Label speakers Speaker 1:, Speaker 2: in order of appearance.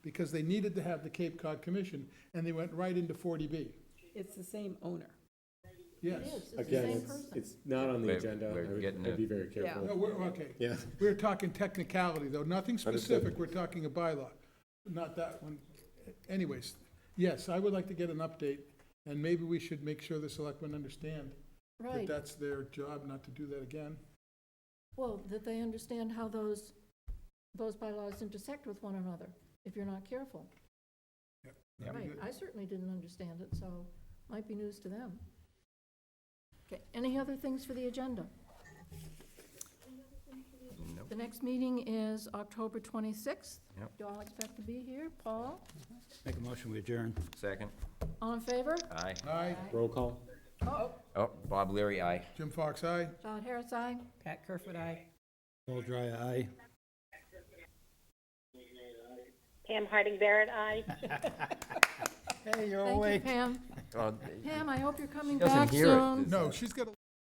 Speaker 1: because they needed to have the Cape Cod Commission, and they went right into 40B.
Speaker 2: It's the same owner.
Speaker 1: Yes.
Speaker 3: Again, it's, it's not on the
Speaker 4: We're-
Speaker 3: agenda.
Speaker 4: we're
Speaker 3: I would-
Speaker 4: getting
Speaker 3: I'd
Speaker 4: a-
Speaker 3: be very
Speaker 1: No,
Speaker 3: careful.
Speaker 1: we're, okay.
Speaker 3: Yeah.
Speaker 1: We're talking technicality, though, nothing
Speaker 3: Understood.
Speaker 1: specific, we're talking a bylaw, not that one. Anyways, yes, I would like to get an update, and maybe we should make sure the selectmen understand that
Speaker 5: Right,
Speaker 1: that's their job, not to do that again.
Speaker 5: well, that they understand how those, those bylaws intersect with one another, if you're not careful.
Speaker 1: Yep.
Speaker 5: Right,
Speaker 4: Mm-hmm.
Speaker 5: I certainly didn't understand it, so might be news to them. Okay, any other things for the agenda?
Speaker 4: Nope.
Speaker 5: The next meeting is October 26th.
Speaker 4: Yep.
Speaker 5: Do all expect to be here? Paul,
Speaker 6: Make a motion, we adjourn.
Speaker 4: Second,
Speaker 5: all in favor?
Speaker 4: aye.
Speaker 1: Aye,
Speaker 3: Roll call?
Speaker 5: Oh,
Speaker 4: Oh, Bob Leary, aye.
Speaker 1: Jim Fox, aye.
Speaker 5: John Harris, aye.
Speaker 2: Pat Kerfoot, aye.
Speaker 6: Paul Dry, aye.
Speaker 7: Pam Harding Barrett, aye.
Speaker 6: Hey, you're
Speaker 5: Thank you, Pam.
Speaker 4: Oh,
Speaker 5: Pam, I hope you're coming
Speaker 4: Doesn't
Speaker 5: back
Speaker 4: hear it.
Speaker 5: soon.
Speaker 1: No, she's got a